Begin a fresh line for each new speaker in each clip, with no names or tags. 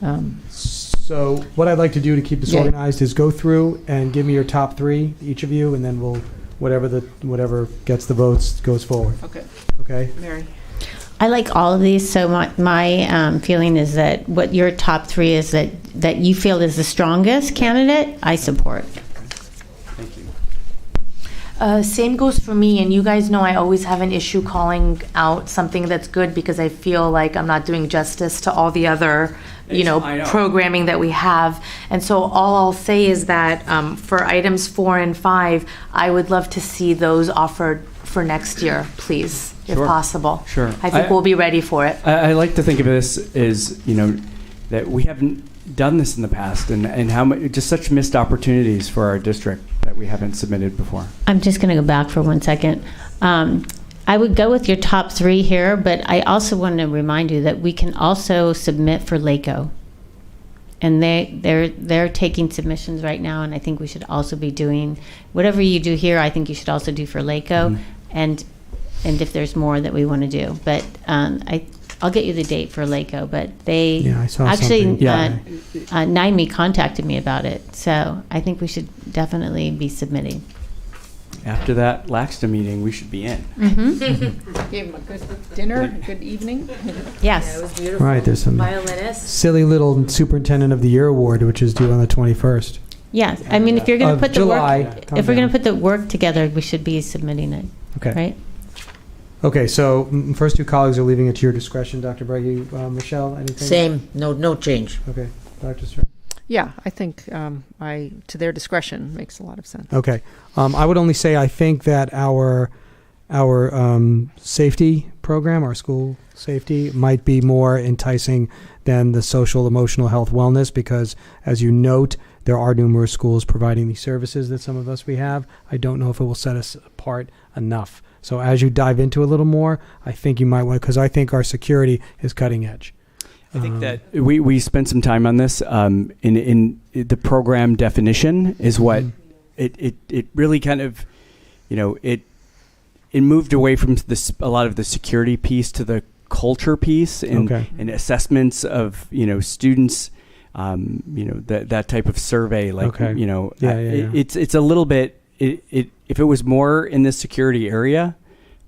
Um,
So what I'd like to do to keep this
Yeah.
organized is go through and give me your top three, each of you, and then we'll, whatever the, whatever gets the votes goes forward,
Okay,
okay?
Mary.
I like all of these. So my, my um, feeling is that what your top three is that, that you feel is the strongest candidate, I support.
Thank you.
Uh, same goes for me, and you guys know I always have an issue calling out something that's good because I feel like I'm not doing justice to all the other, you
It's-
know,
I know.
programming that we have. And so all I'll say is that um, for items four and five, I would love to see those offered for next year, please, if
Sure.
possible.
Sure.
I think
I-
we'll be ready for it.
I, I like to think of this as you know that we haven't done this in the past, and and how much just such missed opportunities for our district that we haven't submitted before.
I'm just going to go back for one second. Um, I would go with your top three here, but I also want to remind you that we can also submit for LACO. And they, they're, they're taking submissions right now, and I think we should also be doing, whatever you do here, I think you should also do for LACO.
Mhm.
Mm-hmm.
And, and if there's more that we want to do, but, um, I, I'll get you the date for LACO, but they.
Yeah, I saw something.
Actually, uh,
Yeah.
uh, NIME contacted me about it, so I think we should definitely be submitting.
After that Laxton meeting, we should be in.
Gave him a good dinner, a good evening.
Yes.
All right, there's some
Violinist.
silly little Superintendent of the Year award, which is due on the 21st.
Yes, I mean, if you're going
Of
to put the
July.
work,
Yeah, calm
if we're going
down.
to put the work together, we should be submitting it,
Okay.
right?
Okay, so mm, first two colleagues are leaving it to your discretion, Dr. Breggy. Uh, Michelle, anything?
Same, no, no change.
Okay, Dr. Stern.
Yeah, I think um, I, to their discretion, makes a lot of sense.
Okay. Um, I would only say I think that our our um, safety program, our school safety, might be more enticing than the social emotional health wellness because, as you note, there are numerous schools providing these services that some of us we have. I don't know if it will set us apart enough. So as you dive into a little more, I think you might want because I think our security is cutting edge.
I think
Um,
that Uh, we, we spent some time on this. Um, in in the program definition is what
Mm.
it, it it really kind of, you know, it it moved away from this a lot of the security piece to the culture piece and
okay.
and assessments of you know students um, you know that that type of survey like
Okay.
you know
Yeah,
I-
yeah,
it-
yeah.
it's it's a little bit it, it if it was more in this security area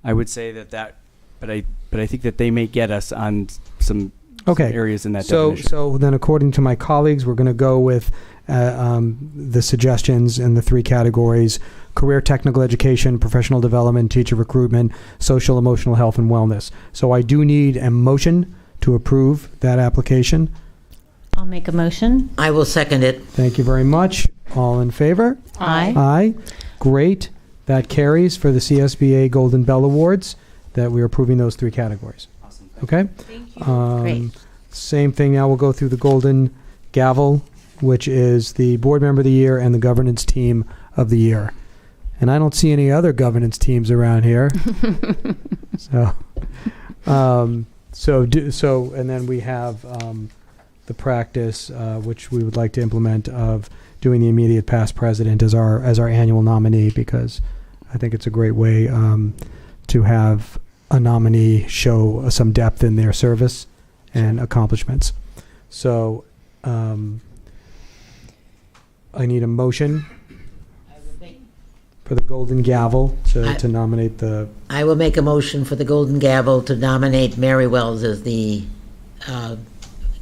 i would say that that but i but i think that they may get us on some
Okay.
areas in that
so,
definition
So then, according to my colleagues, we're going to go with uh, um, the suggestions in the three categories career technical education, professional development, teacher recruitment, social emotional health, and wellness. So I do need a motion to approve that application.
I'll make a motion.
I will second it.
Thank you very much. All in favor?
Aye.
Aye. Great. That carries for the CSBA Golden Bell Awards that we are approving those three categories.
awesome.
Okay? Thank you. Um,
Great.
Same thing now, we'll go through the Golden Gavel, which is the Board Member of the Year and the Governance Team of the Year. And I don't see any other governance teams around here. so, um, so, do, so, and then we have um, the practice, uh, which we would like to implement, of doing the immediate past president as our as our annual nominee because I think it's a great way um, to have a nominee show some depth in their service and accomplishments. So, um, I need a motion for the golden gavel to,
I-
to nominate the.
I will make a motion for the Golden Gavel to nominate Mary Wells as the uh,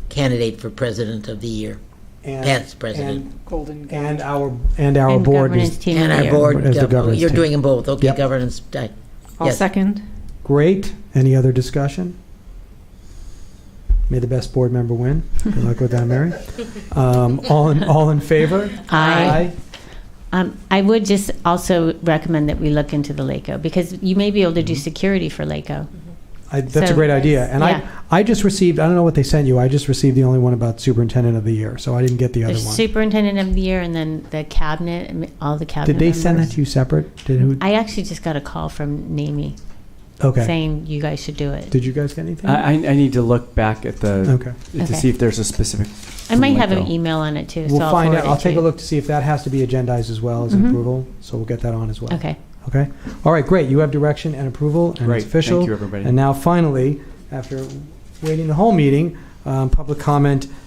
candidate for President of the Year,
And,
past President.
Golden
And, and our and our
And
board
governance
is
team
And
of the
our
year.
board,
As the
uh,
governance
you're
team.
doing them both, okay,
Yep.
governance. uh,
I'll
yes.
second.
great. Any other discussion? May the best board member win. Good luck with that, Mary. Um, all in all in favor?
Aye. Um, I would just also recommend that we look into the LACO because you may be able to do
Mm-hmm.
security for LACO.
I, that's a
So-
great idea. And
Yeah.
I, I just received, I don't know what they sent you. I just received the only one about superintendent of the year, so I didn't get the other
There's
one.
superintendent of the year and then the cabinet, and all the cabinet
Did they send that
members.
to you separate? Did who?
I actually just got a call from NAMI
Okay.
saying you guys should do it.
Did you guys get anything?
I, I I need to look back at the
Okay.
to
Okay.
see if there's a specific
I might have an
Like, oh.
email on it too, so
We'll
I'll
find
forward
out.
it
I'll
to
take a
you.
look to see if that has to be agendized as well as
Mhm.
approval, so we'll get that on as well.
Okay.
Okay? All right, great. You have direction and approval, and
great
it's official.
thank you everybody
And now finally, after waiting the whole meeting, um, public comment